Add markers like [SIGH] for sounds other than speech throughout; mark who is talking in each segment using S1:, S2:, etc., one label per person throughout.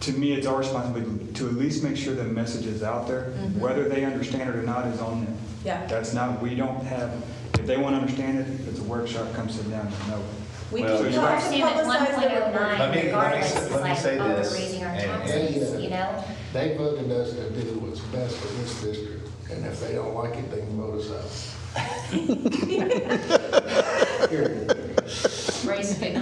S1: to me, it's our responsibility to at least make sure the message is out there. Whether they understand it or not is on them.
S2: Yeah.
S1: That's not, we don't have, if they want to understand it, it's a workshop, come sit down and know.
S2: We
S3: Well,
S2: do
S1: you're
S2: have
S1: right.
S2: to
S4: Understand
S2: publicize
S4: it's
S2: the report.
S4: 1.09
S3: Let me- let me
S4: regardless,
S3: say-
S4: it's
S3: let me
S4: like,
S3: say
S4: oh, we're
S3: this,
S4: raising our
S3: and- and-
S4: taxes, you know?
S5: They voted us to do what's best for this district, and if they don't like it, they can vote us out. Period.
S4: Raise it.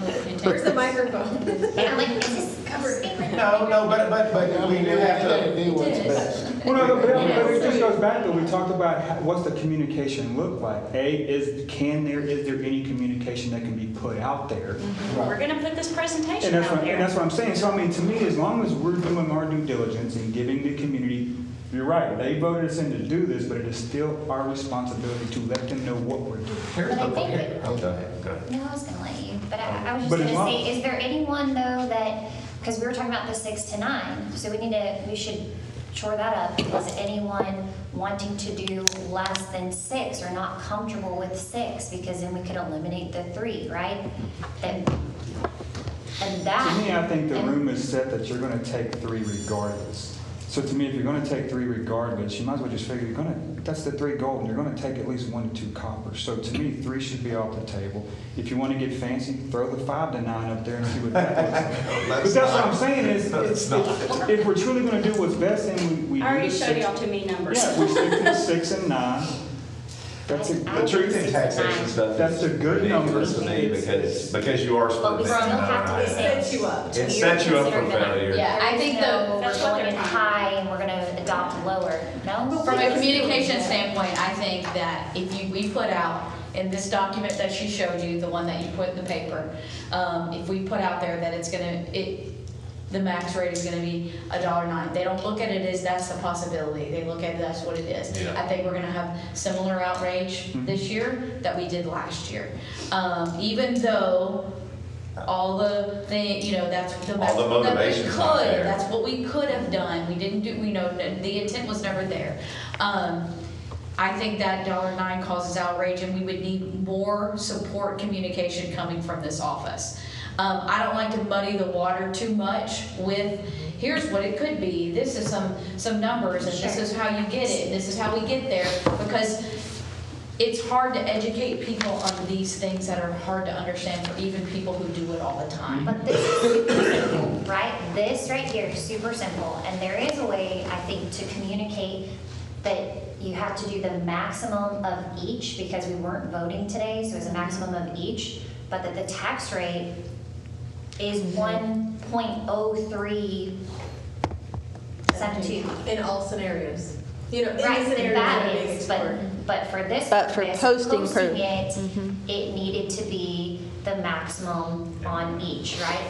S3: [LAUGHS]
S2: Where's the microphone?
S4: And I'm like, is this covered?
S3: No, no, but, but, but we do have to,
S5: They didn't do what's
S4: It is.
S5: best.
S1: Well, no, but- but it just goes back, though, we talked about how- what's the communication look like? A, is, can there, is there any communication that can be put out there?
S6: Mm-hmm. We're gonna put this
S1: And
S6: presentation
S1: that's
S6: out
S1: what, and that's
S6: there.
S1: what I'm saying, so I mean, to me, as long as we're doing our due diligence and giving the community, you're right, they voted us in to do this, but it is still our responsibility to let them know what we're doing.
S3: here's
S4: But
S3: the, Oh,
S4: I think
S3: here,
S4: it-
S3: oh, go ahead, go ahead.
S4: No, I was gonna let you, but I, I was
S1: But
S4: just
S1: it's
S4: gonna
S1: not-
S4: say, is there anyone though that, because we were talking about the six to nine, so we need to, we should shore that up. Is anyone wanting to do less than six or not comfortable with six? Because then we could eliminate the three, right? And, and that.
S1: To me, I think the
S6: Ah.
S4: and-
S1: room is set that you're going to take three regardless. So to me, if you're going to take three regardless, you might as well just figure you're going to, that's the three gold, and you're going to take at least one to two coppers. So to me, three should be off the table. If you want to get fancy, throw the five to nine up there and see what that looks like. But that's what I'm saying is, it's- it's- if we're truly going to do what's best, then we. we
S6: I already
S1: do the
S6: showed
S1: six-
S6: y'all too many numbers.
S1: Yeah, we stick to the six and nine. That's it.
S4: I-
S3: The truth in taxation stuff
S1: That's a
S3: is
S1: good
S3: ridiculous to
S1: number.
S3: me because, because you are
S4: But we
S3: splitting.
S4: still have to
S2: It sets
S4: set
S2: you up.
S3: It sets you up for failure.
S7: Yeah, I think
S4: though
S7: the-
S4: We're
S6: That's what
S4: going
S6: they're-
S4: high and we're gonna adopt lower, no?
S7: From a communication standpoint, I think that if you, we put out in this document that she showed you, the one that you put in the paper, um, if we put out there that it's gonna, it, the max rate is gonna be a dollar nine, they don't look at it as that's the possibility, they look at it that's what it is.
S3: Yeah.
S7: I think we're gonna have similar outrage this year that we did last year. Um, even though all the thing, you know, that's the best
S3: the
S7: one that we
S3: motivation's not
S7: could,
S3: there.
S7: that's what we could have done, we didn't do, we know, the intent was never there. Um, I think that dollar nine causes outrage, and we would need more support communication coming from this office. Um, I don't like to muddy the water too much with, here's what it could be, this is some, some numbers, and this
S4: Sure.
S7: is how you get it, and this is how we get there, because it's hard to educate people on these things that are hard to understand for even people who do it all the time.
S4: But this is super simple, right? This right here is super simple, and there is a way, I think, to communicate that you have to do the maximum of each, because we weren't voting today, so it's a maximum of each, but that the tax rate is one point oh three seven two.
S2: In all scenarios. You know, any
S4: Right,
S2: scenario that
S4: that
S2: being
S4: is, but,
S2: explored.
S4: but for this
S8: But for Mm-hmm.
S4: purpose,
S8: posting
S4: posting
S8: proof.
S4: it, it needed to be the maximum on each, right?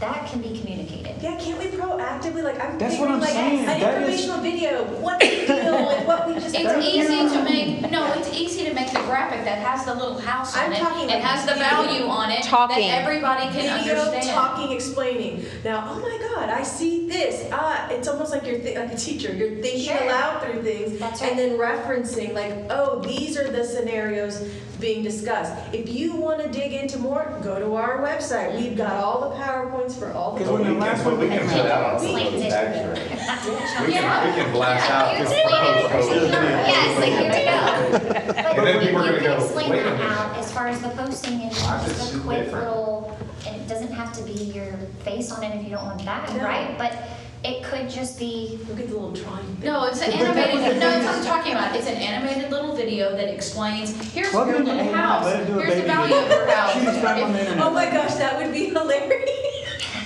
S4: That can be communicated.
S2: Yeah, can't we proactively, like, I'm
S1: That's what I'm
S2: thinking like
S1: saying.
S2: an
S1: That is-
S2: informational video, what the deal, and what we just.
S7: It's easy to make, no, it's easy to make the graphic that has the little house on
S2: I'm
S7: it,
S2: talking
S7: it
S2: like
S7: has the
S2: video.
S7: value on it, that
S8: Talking.
S7: everybody can
S2: Video,
S7: understand.
S2: talking, explaining. Now, oh my God, I see this. Ah, it's almost like you're thi- like a teacher. You're thinking
S4: Sure.
S2: aloud through things
S4: That's
S2: and
S4: right.
S2: then referencing like, oh, these are the scenarios being discussed. If you want to dig into more, go to our website. We've got all the powerpoints for all the.
S1: Because when the last one
S3: But we can put out on
S4: Explained
S3: the
S4: it.
S3: tax rate.
S4: [LAUGHS]
S3: We
S7: Yeah.
S3: can, we can blast out.
S4: You
S3: this
S4: explain it.
S3: proposed rate.
S4: Yes, like, here we go. But
S3: And then
S4: you
S3: people are gonna
S4: can
S3: go,
S4: explain
S3: wait a
S4: that
S3: minute.
S4: out as far as the posting and
S3: Why is
S4: just a
S3: this
S4: quick
S3: different?
S4: little, and it doesn't have to be your face on it if you don't want that,
S2: No.
S4: right? But it could just be,
S2: Look at the little drawing. thing.
S7: [LAUGHS] No, it's an animated, no, that's what I'm talking about, it's an animated little video that explains, here's your
S1: Plug it in
S7: little
S1: and
S7: house,
S1: let it do a
S7: here's the
S1: baby
S7: value of
S1: [LAUGHS]
S7: your house.
S1: Choose from on the
S7: If-
S1: internet.
S2: [LAUGHS] Oh my gosh, that would be [LAUGHS] hilarious.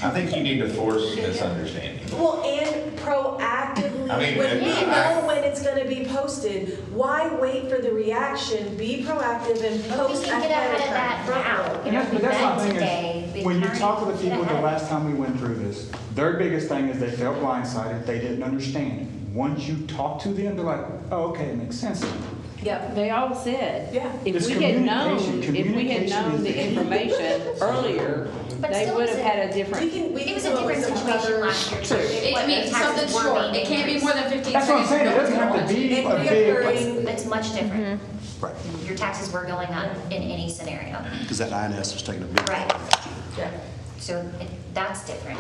S3: I think you need to force misunderstanding.
S2: Well, and proactively,
S3: I mean,
S2: when we
S3: yeah.
S2: know when it's gonna be posted, why wait for the reaction? Be proactive and
S4: but we
S2: post
S4: can get
S2: ahead of
S4: ahead of that
S2: time.
S4: now.
S1: And that's, but that's my thing
S4: Today,
S1: is, when you
S4: we
S1: talk to the people [LAUGHS] the
S4: kinda get ahead.
S1: last time we went through this, their biggest thing is they felt blindsided, they didn't understand. it. Once you talk to them, they're like, oh, okay, it makes sense.
S2: Yep.
S9: They all said,
S2: Yeah.
S9: if
S1: It's
S9: we had known,
S1: communication.
S9: if we had
S1: Communication is
S9: known
S1: the
S9: the
S1: key.
S9: information earlier,
S4: But
S9: they
S4: still
S9: would
S4: is
S9: have
S4: it-
S9: had a
S2: We
S9: different.
S2: can, we
S4: It
S2: can
S4: was
S2: come
S4: a
S2: up with
S4: different
S2: some
S4: situation
S2: other.
S4: last year. too.
S7: It means something short, it can't be more than fifteen seconds.
S1: That's what I'm saying, it doesn't have to be a big.
S2: Reoccurring-
S4: It's much different.
S2: Mm-hmm.
S10: Right,
S4: Your taxes were going up in any scenario.
S10: because that INS was taking a big.
S4: Right.
S7: Yeah.
S4: So it- that's different.